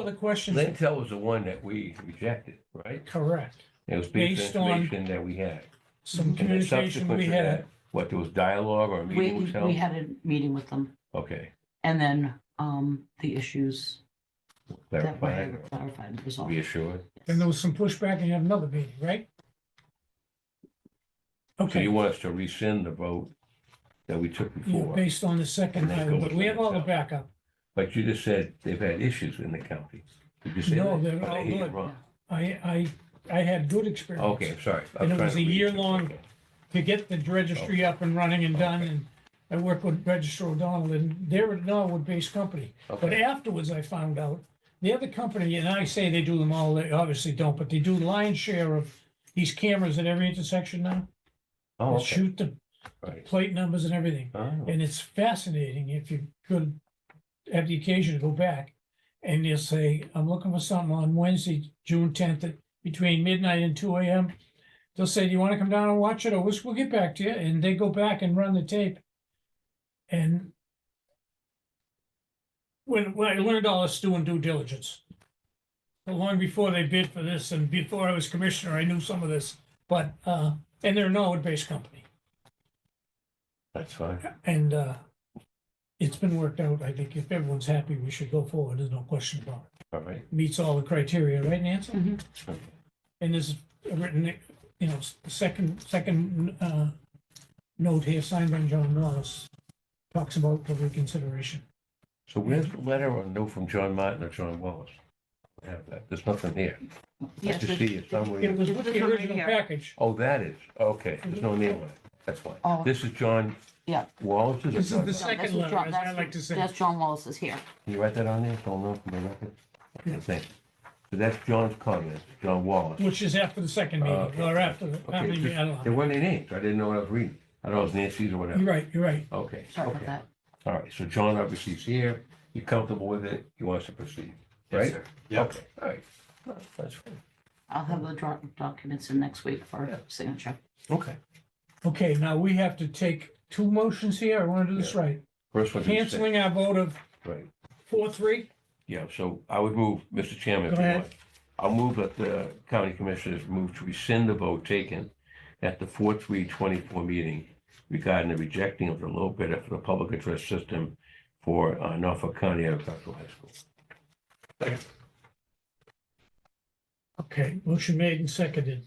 Other questions? Lintel was the one that we rejected, right? Correct. It was based Based on on- information that we had. Some And then communication subsequent we to had. that, what, there was dialogue or a We, meeting was we held? had a meeting with them Okay, and then, um, the issues that clarified, were clarified and resolved. reassured. And there was some pushback and you had another meeting, right? So Okay, you want us to rescind the vote that we took yeah, before, based on the second, And then go item, but with we have all the Lintel. backup. but you just said they've had issues in the county. Did you say No, that? they're Or all they had good. wrong? I, I, I had good experience. Okay, I'm sorry. I'm And it trying was to a read year it. long- Okay. to get the registry up and running and done, and I worked with Register O'Donnell, and they're a Norwood-based company. But Okay, afterwards, I found out, the other company, and I say they do them all, they obviously don't, but they do lion's share of these cameras at every intersection now. oh, They okay, Shoot the right. plate numbers and everything, Oh, and it's fascinating if you could have the occasion to go back. And they'll say, I'm looking for something on Wednesday, June tenth, between midnight and two AM. They'll say, do you want to come down and watch it? Or we'll, we'll get back to you. And they go back and run the tape. And when, when I learned all this doing due diligence, but long before they bid for this and before I was commissioner, I knew some of this, but, uh, and they're a Norwood-based company. That's fine. And uh, it's been worked out. I think if everyone's happy, we should go forward. There's no question about it. All right. Meets all the criteria, right, Nancy? Mhm. Okay. And there's a written, you know, s- second, second uh, note here signed by John Norris talks about the reconsideration. So where's the letter or note from John Martin or John Wallace? I Have that. There's nothing here. I Yes, just there's- see it somewhere. It was It's with the the number original here. package. Oh, that is, okay, there's no name on it, that's fine. Oh. This is John Yeah. Wallace's? or This is John- the No, that's second what letter, John- as I that's- like to say. That's John Wallace is here. Can you write that on there, so I'll know from the record? Yeah. Thanks. So that's John's comment, John Wallace. Which is after the second Oh, meeting, okay. or after, the- Okay, after, the- just- I don't There know. weren't any names, I didn't know what I was reading, I thought it was Nancy's or You're whatever. right, you're right. Okay, Sorry about okay, that. all right, so John obviously is here, you're comfortable with it, he wants to proceed, right? Yep. Okay, All right, that's fine, I'll have the doc- documents in next week Yeah. for signature. okay. Okay, now we have to take two motions here. I want to do this Yeah. right. First one's. a mistake. Canceling our vote of Right, Four, three? yeah, so I would move, Mr. Chairman, if Go you ahead. want. I'll move that the county commissioners move to rescind the vote taken at the four three twenty-four meeting regarding the rejecting of the low bidder for the public address system for uh, Norfolk County Agricultural High School. Okay, motion made and seconded.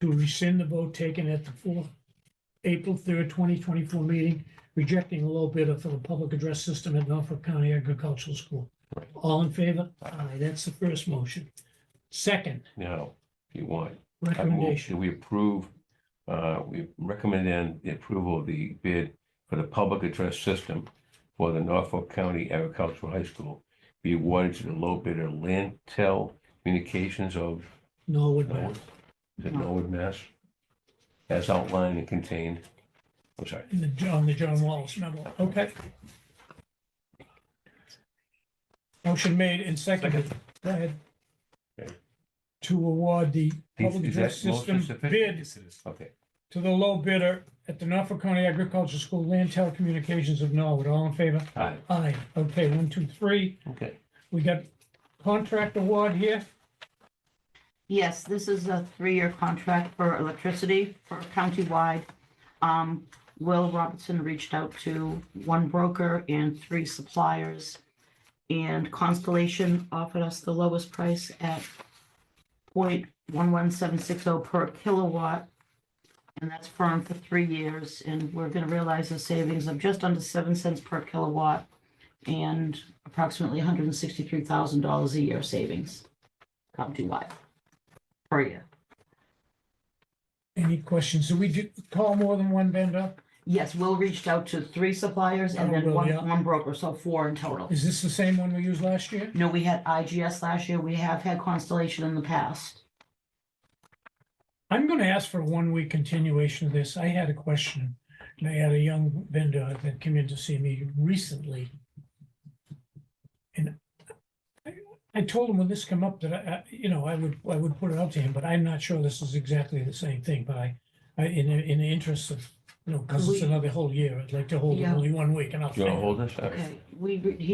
To rescind the vote taken at the fourth, April third, twenty twenty-four meeting, rejecting a low bidder for the public address system at Norfolk County Agricultural School. Right. All in favor? Aye, that's the first motion. Second, Now, if you want, I move recommendation. that we approve, uh, we recommend then the approval of the bid for the public address system for the Norfolk County Agricultural High School be awarded to the low bidder Lantel Communications of Norwood, Norwood? Mass. Is it Norwood, Mass? As outlined and contained, I'm sorry. in the, John the John Wallace memo. Okay. Motion made and seconded. Go ahead. Okay. To award the Is- public is that address motion system sufficient? bid Okay, to the low bidder at the Norfolk County Agricultural School Land Telecommunications of Norwood. All in favor? all right, Aye. Okay, one, two, three. okay. We got contract award here. Yes, this is a three-year contract for electricity for countywide. Um, Will Robinson reached out to one broker and three suppliers. And Constellation offered us the lowest price at 0.11760 per kilowatt. And that's firm for three years, and we're gonna realize a savings of just under seven cents per kilowatt and approximately hundred and sixty-three thousand dollars a year savings countywide per year. Any questions? Do we do- call more than one vendor? Yes, Will reached out to three suppliers and Oh, then Will, one, yeah. one broker, so four in total. Is this the same one we used last year? No, we had IGS last year, we have had Constellation in the past. I'm gonna ask for a one-week continuation of this. I had a question. And I had a young vendor that came in to see me recently. And I- I told him when this come up that I, I- you know, I would, I would put it up to him, but I'm not sure this is exactly the same thing, but I, I, in, the- in the interest of, you know, because it's We- another whole year, I'd like to hold it Yeah. only one week and I'll. You want to say- hold this? All right. Okay, we, he